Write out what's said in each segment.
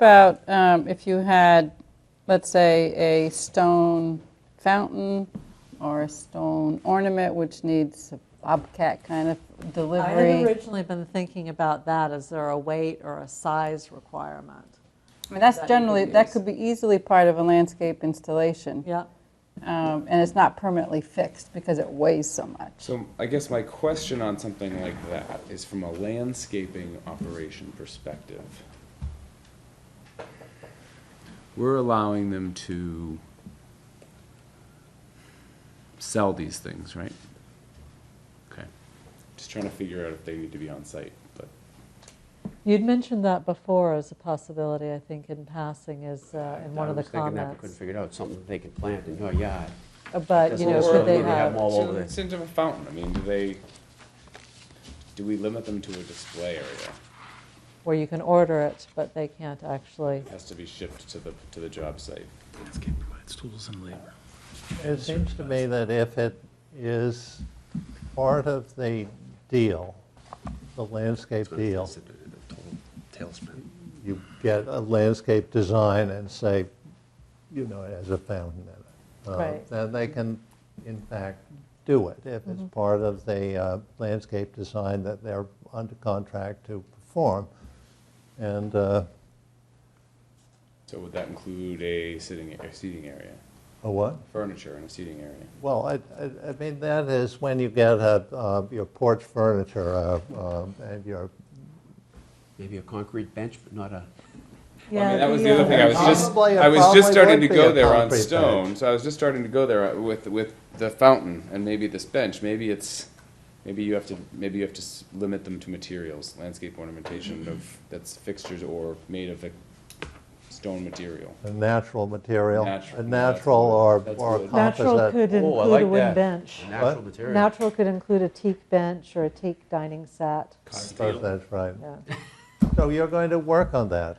About um, if you had, let's say, a stone fountain or a stone ornament which needs a bobcat kind of I had delivery. originally been thinking about that, is there a weight or a size requirement? I mean, that's that you could generally, that use. could be easily part of a landscape installation. Yeah, Um, And it's not permanently fixed because it weighs so much. So I guess my question on something like that is from a landscaping operation perspective. We're allowing them to sell these things, right? Okay. Just trying to figure out if they need to be on site, but you'd mentioned that before as a possibility, I think, in passing, is uh, in one of the I was thinking that, but couldn't comments. figure it out, something that they could plant oh, in your yard. Uh, But, you Doesn't know, look could like they we have have, more- all So over there. It's into a fountain, I mean, do they, do we limit them to a display area? where you can order it, but they can't actually, It has to be shipped to the, to the job site. Landscape provides tools and labor. It seems to me that if it is part of the deal, the landscape deal, Tailspin. you get a landscape design and say, you know, it has a fountain in it. uh, Right. Then they can, in fact, do it if it's part of the uh, landscape design that they're under contract to perform. And uh, So would that include a sitting, a seating area, a what? furniture and a seating area? Well, I, I- I mean, that is when you get a, uh, your porch furniture uh, um, and your Maybe a concrete bench, but not a, I Yeah, mean, that was the the, uh, other thing. I was just, Probably a- I was just probably starting to would be go a there on concrete bench. stone. So I was just starting to go there with, with the fountain and maybe this bench. Maybe it's, maybe you have to, maybe you have to s- limit them to materials, landscape ornamentation of, that's fixtures or made of a stone material. A natural material? Natural, A that's natural wood. or That's or a wood. natural composite? could oh, I include a like wooden that. bench. Natural What? material. Natural could include a teak bench or a teak dining set. I suppose That's right. Yeah. So you're going to work on that?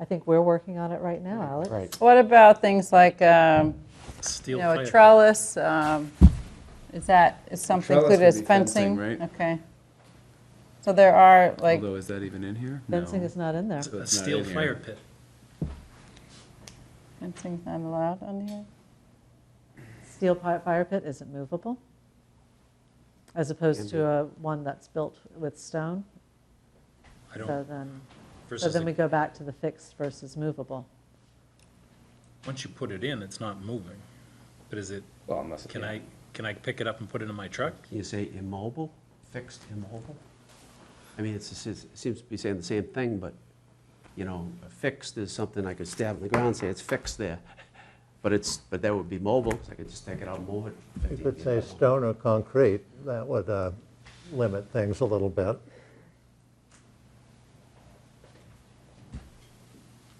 I think we're working on it right now, Alex. Right. What about things like, um, you Steel know, a fire. trellis? um, Is that, is something Trellis included would as be fencing? fencing, right? Okay. So there are, like, Although, is that even in here? No. Fencing is not in there. A That's not steel in here. fire pit. fencing's not allowed on here? Steel pi- fire pit isn't movable, as opposed to a, one that's built with stone. I So don't, then, so versus, then we the- go back to the fixed versus movable. once you put it in, it's not moving. But is it, Well, unless. can I, can I pick it up and put it in my truck? Can you say immobile, fixed immobile? I mean, it's, it's- it seems to be saying the same thing, but, you know, fixed is something I could stab in the ground, and say it's fixed there. But it's, but that would be mobile, so I could just take it out and move it. You 15 could feet. say stone or concrete, that would uh, limit things a little bit.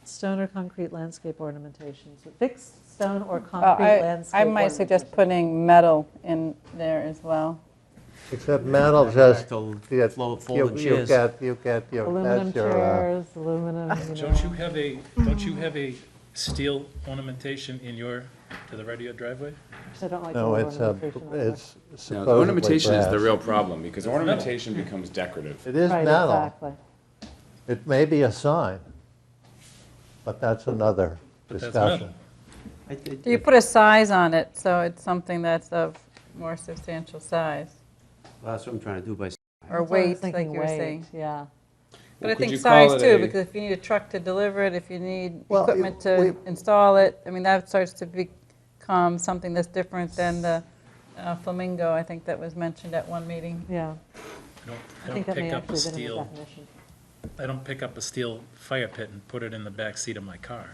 Stone or concrete landscape ornamentations, fixed stone or Well, concrete Uh, I landscape. I might suggest ornamentations. putting metal in there as well. Except metal just, Till you flow- folding you chairs. get, you get your, Aluminum that's your, uh, chairs, aluminum, you Don't you know. have a, don't you have a steel ornamentation in your, to the right of your driveway? I don't like the no, word uh, it's a, ornamentation. on there. it's No, supposedly ornamentation is the brass. real problem because ornamentation becomes decorative. It is Right, metal. exactly. It may be a sign, but that's another that's discussion. I think- Do you put a size on it, so it's something that's of more substantial size? That's what I'm trying to do by, s- Or That's what I was weight, like thinking, you were weight, saying? Yeah. But I Well, could think you call size it too, a- because if you need a truck to deliver it, if you need Well, it- equipment to we- install it, I mean, that starts to become something that's different than the uh, flamingo, I think that was mentioned at one meeting. Yeah, I don't, I I think don't that may pick actually up a have been in the steel, definition. I don't pick up a steel fire pit and put it in the back seat of my car.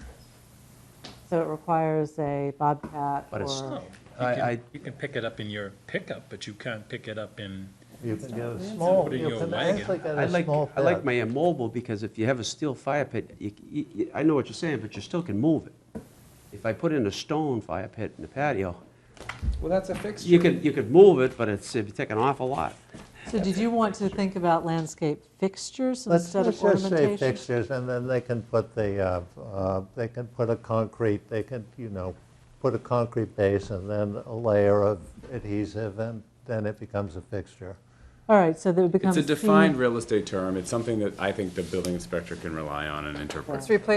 So it requires a bobcat But it's- or, No, I- you can, I- you can pick it up in your pickup, but you can't pick it up in, You can get a small, Put it in you your can wagon. actually get I a like, small I like pit. my immobile, because if you have a steel fire pit, you, you, you- I know what you're saying, but you still can move it. If I put in a stone fire pit in the patio, Well, that's a fixture. you could, you could move it, but it's, it'd take an awful lot. so did you want to think about landscape fixtures Let's instead let's of just say ornamentation? fixtures, and then they can put the, uh, uh, they can put a concrete, they can, you know, put a concrete base and then a layer of adhesive, and then it becomes a fixture. All right, so that it becomes. It's a fee- defined real estate term. It's something that I think the building inspector can rely on and interpret. Let's replace